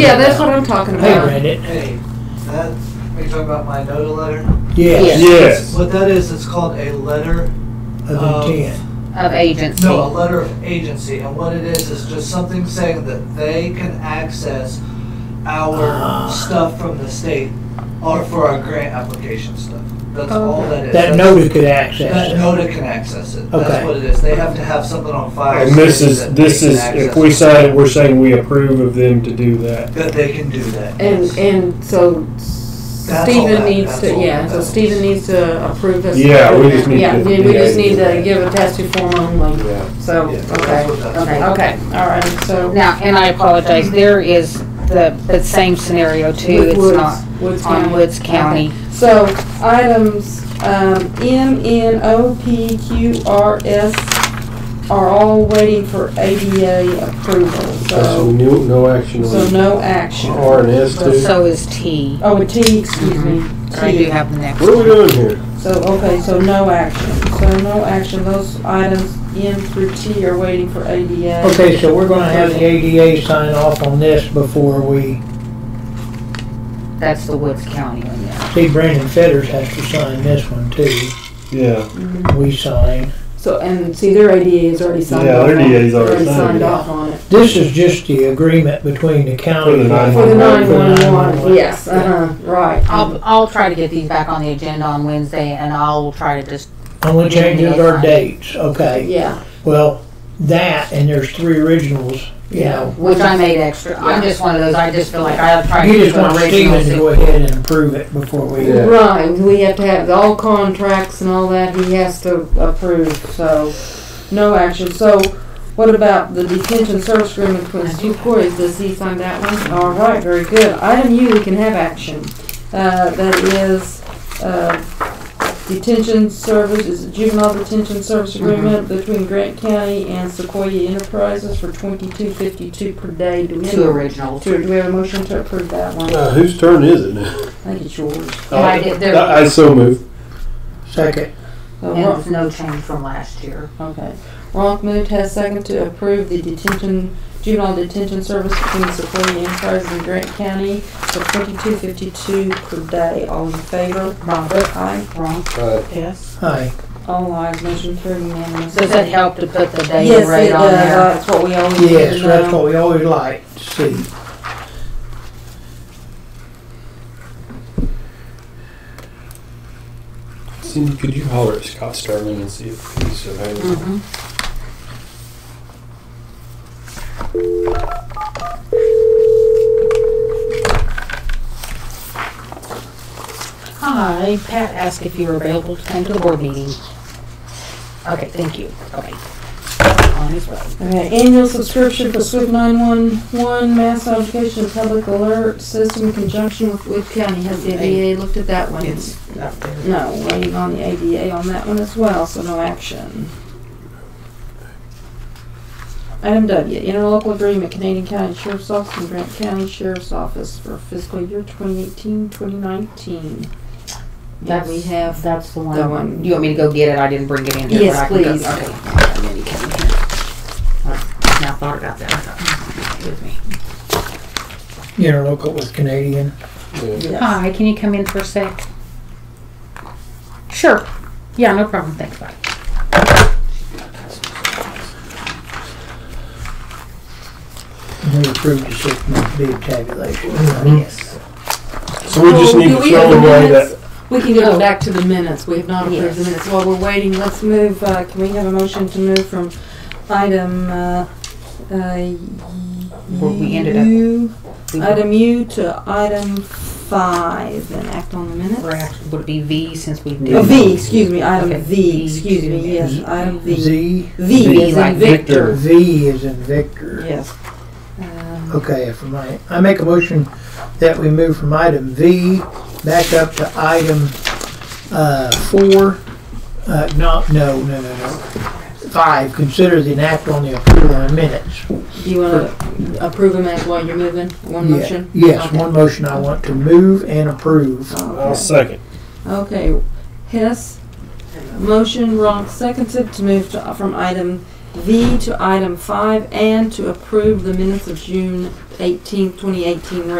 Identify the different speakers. Speaker 1: Yeah, that's what I'm talking
Speaker 2: I
Speaker 1: about.
Speaker 2: read it.
Speaker 3: Hey, that, are you talking about my NODA letter?
Speaker 2: Yes.
Speaker 4: Yes.
Speaker 3: What that is, it's called a letter,
Speaker 2: Of
Speaker 3: Um,
Speaker 2: intent.
Speaker 1: Of agency.
Speaker 3: no, a letter of agency. And what it is, is just something saying that they can access
Speaker 2: Ah.
Speaker 3: our stuff from the state or for our grant application stuff. That's all that
Speaker 2: That
Speaker 3: is. That's-
Speaker 2: NODA could
Speaker 3: That
Speaker 2: access it.
Speaker 3: NODA can access it.
Speaker 2: Okay.
Speaker 3: That's what it is. They have to have something on file.
Speaker 4: And this
Speaker 3: saying
Speaker 4: is,
Speaker 3: that
Speaker 4: this
Speaker 3: they can
Speaker 4: is,
Speaker 3: access
Speaker 4: if we
Speaker 3: it,
Speaker 4: sign it, we're saying we approve of them to do that.
Speaker 3: That they can do that.
Speaker 1: And,
Speaker 3: yes.
Speaker 1: and so
Speaker 3: That's all
Speaker 1: Stephen
Speaker 3: that-
Speaker 1: needs
Speaker 3: that's
Speaker 1: to,
Speaker 3: all
Speaker 1: yeah,
Speaker 3: that
Speaker 1: so
Speaker 3: is.
Speaker 1: Stephen needs to approve us.
Speaker 4: Yeah, we just need
Speaker 1: Yeah,
Speaker 4: to-
Speaker 1: we we just
Speaker 4: yeah.
Speaker 1: need to give a testing form only, so,
Speaker 3: Yeah, that's
Speaker 1: okay,
Speaker 3: what that's
Speaker 1: okay,
Speaker 3: for.
Speaker 1: okay, all right, so.
Speaker 5: Now, and I apologize, there is the, the same scenario too,
Speaker 1: with
Speaker 5: it's
Speaker 1: Woods-
Speaker 5: not
Speaker 1: Woods
Speaker 5: on
Speaker 1: County.
Speaker 5: Woods County.
Speaker 1: So items um, M, N, O, P, Q, R, S are all waiting for ADA approval,
Speaker 6: So
Speaker 1: so,
Speaker 6: no, no action
Speaker 1: so
Speaker 6: on
Speaker 1: no action.
Speaker 6: R and S too?
Speaker 5: So is T.
Speaker 1: Oh, a T, excuse me.
Speaker 5: I do
Speaker 1: T.
Speaker 5: have the next
Speaker 6: What are we
Speaker 5: one.
Speaker 6: doing here?
Speaker 1: So, okay, so no action. So no action, those items M through T are waiting for ADA.
Speaker 2: Okay, so we're gonna have the ADA sign off on this before we,
Speaker 5: That's the Woods County one, yeah.
Speaker 2: see Brandon Fetters has to sign this one too.
Speaker 4: Yeah.
Speaker 2: We sign.
Speaker 1: So, and see, their ADA is already signed
Speaker 4: Yeah,
Speaker 1: off on it.
Speaker 4: their DA is already signed,
Speaker 1: signed
Speaker 4: yeah.
Speaker 1: off on it.
Speaker 2: This is just the agreement between the
Speaker 4: For
Speaker 2: county.
Speaker 4: the
Speaker 2: and-
Speaker 1: For the
Speaker 4: For
Speaker 1: nine-one-one, yes, uh-huh, right.
Speaker 5: I'll, I'll try to get these back on the agenda on Wednesday and I'll try to just,
Speaker 2: Only changes are
Speaker 5: Yeah.
Speaker 2: dates, okay.
Speaker 1: Yeah.
Speaker 2: Well, that, and there's three originals, you know.
Speaker 5: which I made extra, I'm just one of those, I just feel like I have to try to
Speaker 2: You
Speaker 5: keep
Speaker 2: just want
Speaker 5: an
Speaker 2: Steven to go
Speaker 5: original.
Speaker 2: ahead and approve it before we.
Speaker 6: Yeah.
Speaker 1: Right, we have to have all contracts and all that, he has to approve, so, no action. So, what about the detention service agreement between the two quarries, does he sign that one? All right, very good. Item U, we can have action. Uh, that is, uh, detention service, is it juvenile detention service agreement between Grant County and Sequoia Enterprises for twenty-two fifty-two per day. Do we have-
Speaker 5: Two originals.
Speaker 1: Do we have a motion to approve that one? I
Speaker 6: Uh, whose turn is it now?
Speaker 1: think it's yours.
Speaker 5: And I did, there,
Speaker 6: I, I so move.
Speaker 2: Second,
Speaker 1: So,
Speaker 5: and
Speaker 1: Ron-
Speaker 5: it's no change from last year.
Speaker 1: Okay. Ronk moved, has second to approve the detention, juvenile detention service between Sequoia Enterprises and Grant County for twenty-two fifty-two per day. All in favor? Bobbit. Aye. Ronk.
Speaker 6: Uh,
Speaker 1: Yes.
Speaker 2: aye.
Speaker 1: All ayes, motion carried unanimously.
Speaker 5: Does it help to put the day
Speaker 1: Yes, it uh,
Speaker 5: rate on
Speaker 1: does.
Speaker 5: there?
Speaker 1: That's what we always need
Speaker 2: Yes,
Speaker 1: to
Speaker 2: that's
Speaker 1: know.
Speaker 2: what we always like to see.
Speaker 6: Cindy, could you holler at Scott Sterling and see if he's available?
Speaker 5: Mhm. Hi, Pat asked if you were available to come to the board meeting. Okay, thank you. Okay. On his way.
Speaker 1: Okay, annual subscription for SWIFT nine-one-one mass notification and public alert system in conjunction with Wood County. Has the ADA looked at that one?
Speaker 5: Not there.
Speaker 1: No, waiting on the ADA on that one as well, so no action. Item W, interlocal agreement, Canadian County Sheriff's Office and Grant County Sheriff's Office for fiscal year 2018, 2019. That we have.
Speaker 5: That's the
Speaker 1: The one.
Speaker 5: one. You want me to go get it? I didn't bring it in here.
Speaker 1: Yes,
Speaker 5: but I can go-
Speaker 1: please.
Speaker 5: Okay. And then he came in here. All right, Now I thought about that. I thought, Excuse me.
Speaker 2: Interlocal with Canadian.
Speaker 6: Yeah.
Speaker 1: Yes.
Speaker 5: Hi, can you come in for a sec? Sure. Yeah, no problem. Thanks, bye.
Speaker 2: We approved the six-month bid tabulation.
Speaker 1: Mm-hmm.
Speaker 5: Yes.
Speaker 6: So we just
Speaker 1: Oh,
Speaker 6: need
Speaker 1: do
Speaker 6: to
Speaker 1: we have
Speaker 6: throw
Speaker 1: the
Speaker 6: away
Speaker 1: minutes?
Speaker 6: that.
Speaker 1: We can go
Speaker 5: Oh.
Speaker 1: back to the minutes, we have not approved the
Speaker 5: Yes.
Speaker 1: minutes. While we're waiting, let's move, uh, can we have a motion to move from item, uh, uh,
Speaker 5: Where we ended up.
Speaker 1: U?
Speaker 5: We-
Speaker 1: Item U to item five, and act on the minutes.
Speaker 5: we're act- Would it be V since we
Speaker 1: Oh,
Speaker 5: did?
Speaker 1: V, excuse me,
Speaker 5: Okay.
Speaker 1: item V,
Speaker 5: V
Speaker 1: excuse
Speaker 5: to
Speaker 1: me, yes, item V.
Speaker 2: Z,
Speaker 1: V is
Speaker 5: like
Speaker 1: in Victor.
Speaker 2: V is in Victor.
Speaker 1: Yes. Um,
Speaker 2: Okay, if I might, I make a motion that we move from item V back up to item, uh, four. Uh, no, no, no, no, no. Five, consider the act on the approval of minutes.
Speaker 1: Do you wanna approve them as while you're moving, one
Speaker 2: Yeah.
Speaker 1: motion?
Speaker 2: Yes,
Speaker 1: Okay.
Speaker 2: one motion I want to move and approve.
Speaker 4: I'll
Speaker 1: Okay.
Speaker 4: second.
Speaker 1: Okay, Hess, motion Ronk seconded to move to, from item V to item five and to approve the minutes of June 18, 2018 rate.